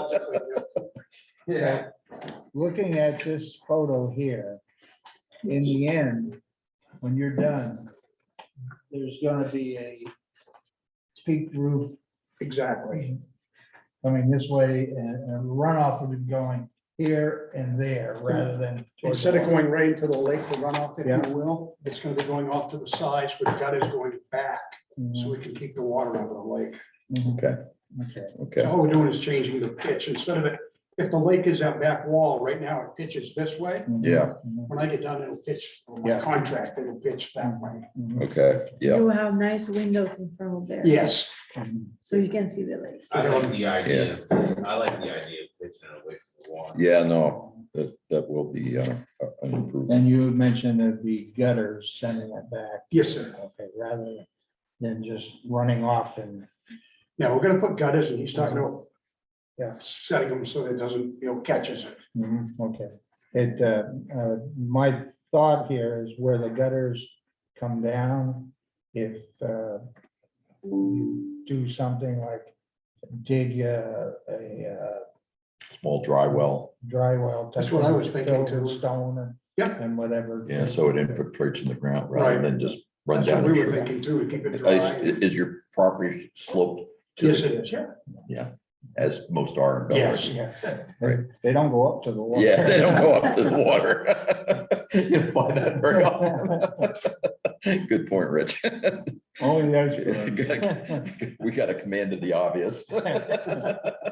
logically. Yeah. looking at this photo here, in the end, when you're done, there's gonna be a peaked roof Exactly. coming this way and and runoff of it going here and there rather than. towards the Instead of going right into the lake to run off, if Yeah. you will, it's gonna be going off to the sides, but gut is going back, so Mhm, we can keep the water out of the lake. mhm, Okay, Okay, And okay. All we're doing is changing the pitch, instead of it, if the lake is that back wall, right now it pitches this way, mhm, Yeah. mhm, when I get done, it'll pitch, on my Yeah. contract, it'll pitch that way. mhm, Okay, yeah, You have nice windows in front of Mm-hmm. there. Yes, mhm. So you can see the lake. I like the idea, I like the idea of pitching it away from the water. yeah, Oh. no, that, that will be uh, an improvement. And you had mentioned it'd be gutters sending it back. yes, sir. Okay, rather than just running off and, Now, we're gonna put gutters, and he's talking about Yeah. setting them so that it doesn't, you know, catches it. mhm, okay. It, uh, uh, my thought here is where the gutters come down, if uh, you do something like dig uh, a uh, Small dry well, dry well. That's what I was type thinking thing, fill with too. Stone and. Yep. And whatever. yeah, so it infiltrates in the ground rather Right. than just run That's what down. we and were shoot. thinking too, to keep it Is, dry. is your property sloped to, Yes, the- it is, yeah. as most are in Bel Air? Yes. Yeah. Right. They don't go up to the water. Yeah, they don't go up to the water. You don't find that very often. Good point, Rich. Only those. go up. We got a command of the obvious. Uh,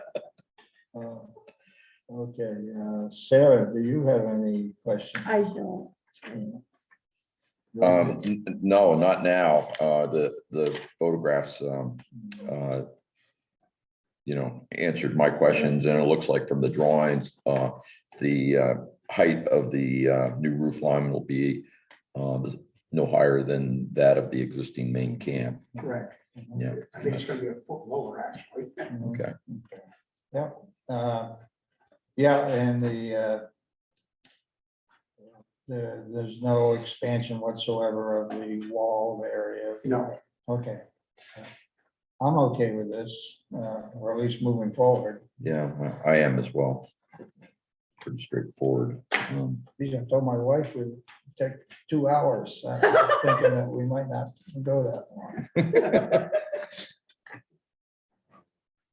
Okay, uh, Sarah, do you have any questions? I don't. Um, n- n- no, not now. Uh, the, the photographs, um, uh, you know, answered my questions and it looks like from the drawings, uh, the, uh, height of the, uh, new roof line will be, uh, no higher than that of the existing main camp. Correct. Yeah. I think it's gonna be a foot lower, actually. Okay. Mm-hmm. Yeah, uh, yeah, and the, uh, the, there's no expansion whatsoever of the wall area. No. Okay. I'm okay with this, uh, or at least moving forward. Yeah, I- I am as well. Pretty straightforward. Um, These I told my wife would take two hours, uh, thinking that we might not go that long.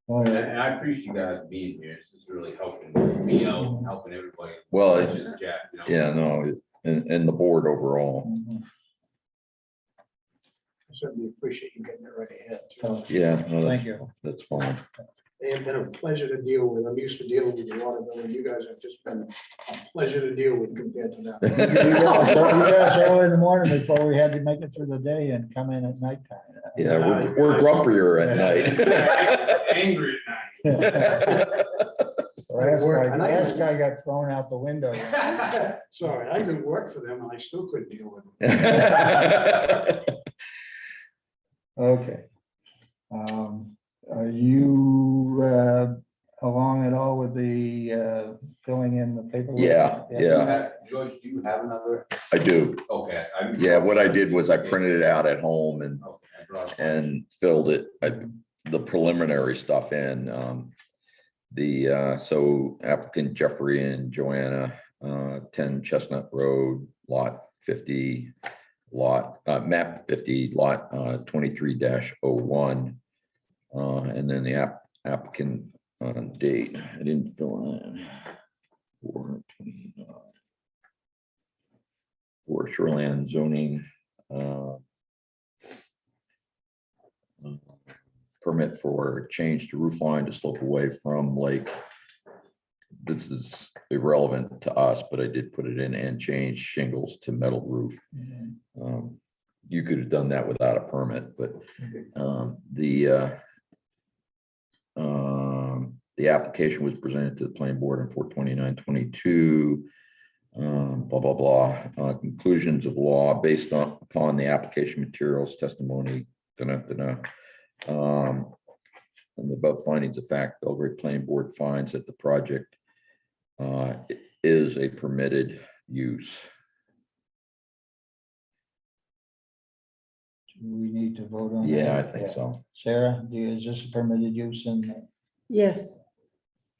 All And I- right, and I appreciate you guys being here, this is really helping me out, helping everybody. Well, Which it- is Jack, you know. yeah, no, it- and, and the board overall. mhm, Certainly appreciate you getting it right ahead. Oh. Yeah. no, that's- Thank you. That's fine. They have been a pleasure to deal with. I'm used to dealing with a lot of them, and you guys have just been a pleasure to deal with compared to that. You guys you guys early in the morning before we had to make it through the day and come in at Yeah, we're, we're grumpier at night. Angry at night. nighttime. Last Work, guy, and I- last guy got thrown out the window. Sorry, I didn't work for them, and I still couldn't deal with them. Okay. Um, Are you uh, along at all with the uh, filling in the paperwork? Yeah, Do you yeah. have- George, do you have another? I do. Okay. I- Yeah, what I did was I printed it out at home and, Okay, I brought- and filled it, I- the preliminary stuff in. um, The, uh, so applicant Jeffrey and Joanna, uh, ten Chestnut Road, lot fifty, lot, uh, map fifty, lot, uh, twenty-three dash oh one. Uh, and then the app, applicant, uh, date, I didn't fill in. Four, uh, for shoreline zoning, uh, permit for change to roof line to slope away from lake. This is irrelevant to us, but I did put it in and change shingles to metal roof. Um, You could have done that without a permit, but um, the uh, um, the application was presented to the planning board on four twenty-nine twenty-two um, blah, blah, blah, uh, conclusions of law based on, upon the application materials, testimony, da, da, Um, and the above findings of fact, Belgrade Planning Board finds that the project uh, i- is a permitted use. Do We need to vote on. that? Yeah, I think so. Sarah, do you- is this a permitted use in? uh, Yes,